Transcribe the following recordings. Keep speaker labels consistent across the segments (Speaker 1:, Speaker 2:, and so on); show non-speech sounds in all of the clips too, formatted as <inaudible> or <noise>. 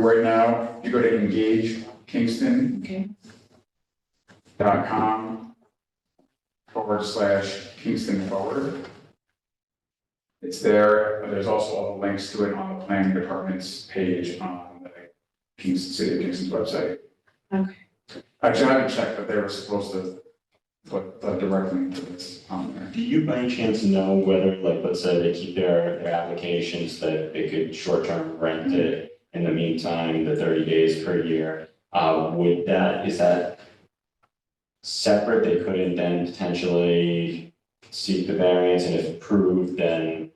Speaker 1: right now, you go to engage Kingston
Speaker 2: Okay.
Speaker 1: dot com forward slash Kingston Forward. It's there, but there's also all the links to it on the planning department's page on the Kingston, City of Kingston's website.
Speaker 2: Okay.
Speaker 1: Actually, I haven't checked, but they were supposed to put the direct link to this on there.
Speaker 3: Do you by any chance know whether, like, let's say they keep their, their applications, that they could short-term rent it in the meantime, the thirty days per year? Uh, would that, is that separate? They couldn't then potentially seek the variance and if approved, then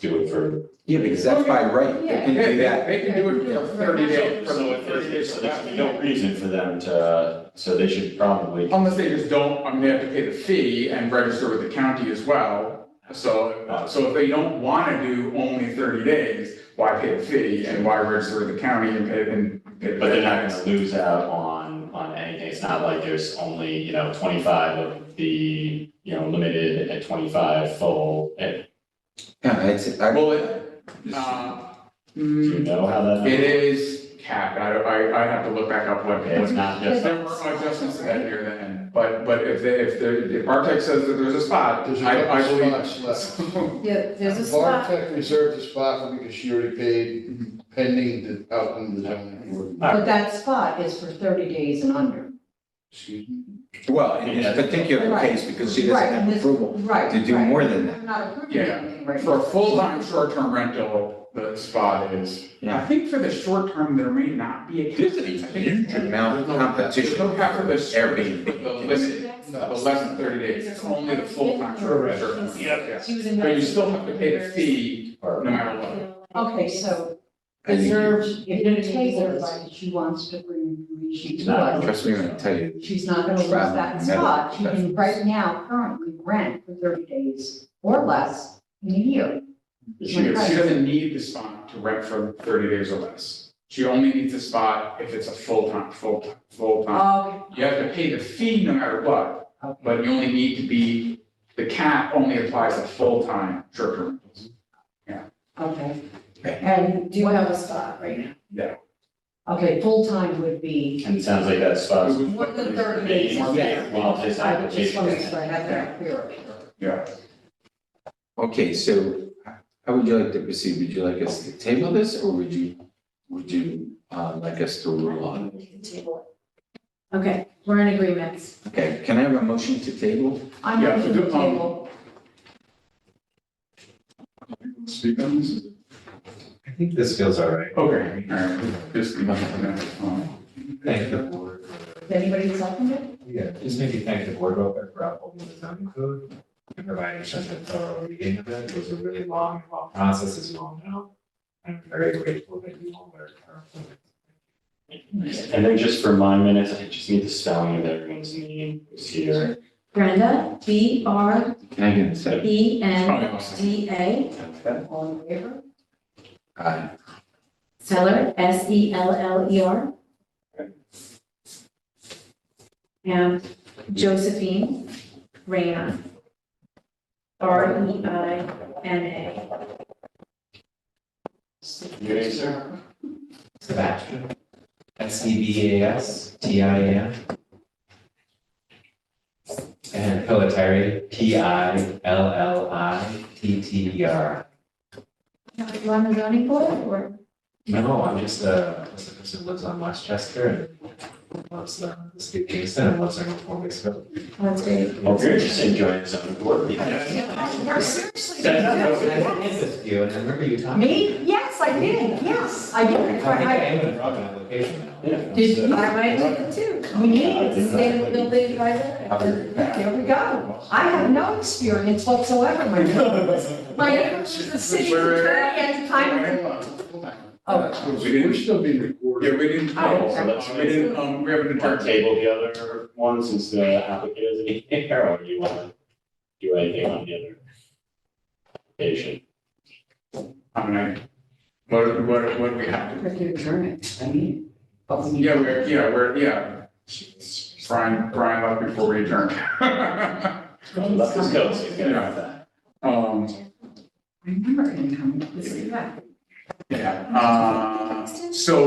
Speaker 3: do it for.
Speaker 4: Yeah, because that's by right, they can do that.
Speaker 1: They can do it for thirty days.
Speaker 3: So if,
Speaker 1: thirty
Speaker 3: if,
Speaker 1: days
Speaker 3: so
Speaker 1: from
Speaker 3: there's
Speaker 1: now.
Speaker 3: no reason for them to, so they should probably.
Speaker 1: Unless they just don't, I mean, they have to pay the fee and register with the county as well. So, uh, so if they don't want to do only thirty days, why pay the fee and why register with the county and pay and pay the
Speaker 3: But they're not gonna lose out on, on anything, it's not like there's only, you know, twenty-five of the, you know, limited at twenty-five full, Eh, and
Speaker 4: Yeah, it's, I,
Speaker 1: Well, it, uh,
Speaker 3: do you
Speaker 1: mm,
Speaker 3: know how that?
Speaker 1: it is capped, I, I, I have to look back up what.
Speaker 3: It's not
Speaker 1: Yes,
Speaker 3: just,
Speaker 1: there were adjustments to that near the end, but, but if they, if the, if Bartek says that there's a spot,
Speaker 5: There's a
Speaker 1: I, I
Speaker 5: couple
Speaker 1: believe.
Speaker 5: spots left.
Speaker 2: Yeah, there's a spot,
Speaker 5: Bartek reserved a spot for because she already
Speaker 1: Mm-hmm.
Speaker 5: paid pending the out in the zoning board.
Speaker 1: Uh,
Speaker 2: but that spot is for thirty days and under.
Speaker 5: Excuse me?
Speaker 4: well, in this particular
Speaker 2: Right.
Speaker 4: case, because she doesn't
Speaker 2: Right, and
Speaker 4: have
Speaker 2: this-
Speaker 4: approval
Speaker 2: Right.
Speaker 4: to do
Speaker 2: right.
Speaker 4: more than that.
Speaker 2: We're not approving
Speaker 1: Yeah.
Speaker 2: anything right
Speaker 1: For a
Speaker 2: now.
Speaker 1: full-time, short-term rental, the spot is, I
Speaker 4: Yeah.
Speaker 1: think for the short term, there may not be a.
Speaker 4: There's a huge amount of
Speaker 1: There's no
Speaker 4: competition.
Speaker 1: cap for the short, the
Speaker 4: Airbnb.
Speaker 1: limit, the less than thirty days, it's only the full-time, short term. Yeah.
Speaker 6: She was in.
Speaker 1: But you still have to pay the fee, no
Speaker 3: or,
Speaker 1: matter what.
Speaker 2: Okay, so
Speaker 4: I think you-
Speaker 2: reserved, if you table everybody, she wants to bring information to us.
Speaker 4: Trust me when I tell you,
Speaker 2: She's not gonna lose that spot, she can right now currently rent for thirty days or less in a year.
Speaker 1: She, she doesn't need the spot to rent for thirty days or less. She only needs a spot if it's a full-time, full-time, full-time.
Speaker 2: Okay,
Speaker 1: You have to pay the fee no matter what,
Speaker 2: okay,
Speaker 1: but you only need to be, the cap only applies to full-time short-term rentals.
Speaker 2: okay. And
Speaker 6: Do you have a spot right now?
Speaker 2: Okay, full-time would be
Speaker 3: and it sounds like that spot's.
Speaker 2: more than thirty days.
Speaker 3: More than- Well, his
Speaker 2: I just want to
Speaker 3: application.
Speaker 2: explain that clearly.
Speaker 1: Yeah.
Speaker 4: okay, so how would you like to proceed? Would you like us to table this or would you, would you, uh, like us to rule on? it?
Speaker 6: We can table it. Okay, we're in agreement.
Speaker 4: Okay, can I have a motion to table?
Speaker 2: I'm
Speaker 1: Yeah,
Speaker 2: going to
Speaker 1: do-
Speaker 2: the
Speaker 1: um,
Speaker 2: table,
Speaker 1: Speak on this?
Speaker 7: I think this feels all right.
Speaker 1: Okay, all right, just. um,
Speaker 7: Thank the board.
Speaker 2: Does anybody second it?
Speaker 7: Yeah, just maybe thank the board real quick for upholding the zoning code and providing such a thorough reading of it. It was a really long, long process, as you all know. I'm very grateful that you all were. careful.
Speaker 3: And then just for my minutes, I just need the spelling of everyone's name, who's here.
Speaker 6: Brenda, B R
Speaker 4: Can I get a second?
Speaker 6: E
Speaker 1: Probably
Speaker 6: N
Speaker 1: awesome.
Speaker 6: D A,
Speaker 2: All in favor?
Speaker 4: Aye.
Speaker 6: Seller, S E L L E R. And Josephine Reyna. R E I N A.
Speaker 3: Your name, sir?
Speaker 7: Sebastian. S E B A S T I A N. And Pilatary, P I L L I T T E R.
Speaker 6: You on the zoning board or?
Speaker 7: No, I'm just a, just a person who lives on Westchester and loves the, the state of Kingston and loves their own form of government.
Speaker 6: That's great.
Speaker 3: Well, if you're just enjoying the zoning board. meeting.
Speaker 2: We're seriously.
Speaker 7: I did this to you, and I remember you talking.
Speaker 2: Me? Yes, I did, yes, I
Speaker 7: I
Speaker 2: did.
Speaker 7: think I
Speaker 2: I-
Speaker 7: am gonna drop my location now.
Speaker 3: Yeah.
Speaker 2: Did you?
Speaker 6: I might do it too.
Speaker 2: We need, it.
Speaker 6: State of Building Advisor.
Speaker 2: there we go. I have no experience whatsoever, my friend. My neighbors was the city attorney at the time.
Speaker 1: Hold on, hold on.
Speaker 2: Oh,
Speaker 1: We didn't-
Speaker 5: We're still being
Speaker 1: Yeah,
Speaker 5: recorded.
Speaker 1: we didn't,
Speaker 2: Oh,
Speaker 3: So let's-
Speaker 1: we didn't, um, we haven't
Speaker 3: Want to
Speaker 1: determined.
Speaker 3: table the other one since the applicant isn't <laughs> here, or do you want to do anything on the other application?
Speaker 1: I mean, I- what, what, what do we have?
Speaker 2: we can adjourn it, I mean, but we need.
Speaker 1: Yeah, we're, yeah, we're, yeah. Brian, Brian left before we adjourned. <laughs>
Speaker 3: Let's just go, so you can have that.
Speaker 1: Um,
Speaker 2: I remember him coming to the city back.
Speaker 1: Yeah, uh, so